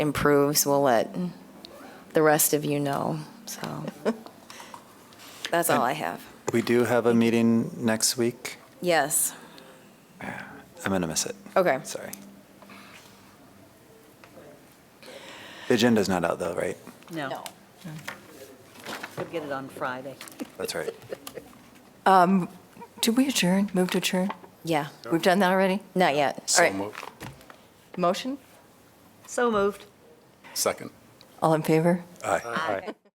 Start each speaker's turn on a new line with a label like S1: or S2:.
S1: improves, we'll let the rest of you know, so. That's all I have.
S2: We do have a meeting next week.
S1: Yes,
S2: I'm going to miss it.
S1: okay.
S2: Sorry. The agenda's not out though, right?
S3: No. We'll get it on Friday.
S2: That's right.
S4: Did we adjourn, move to adjourn?
S1: Yeah,
S4: We've done that already?
S1: not yet.
S4: All
S5: So
S4: right.
S5: moved.
S4: Motion?
S3: So moved.
S5: Second.
S4: All in favor?
S2: Aye.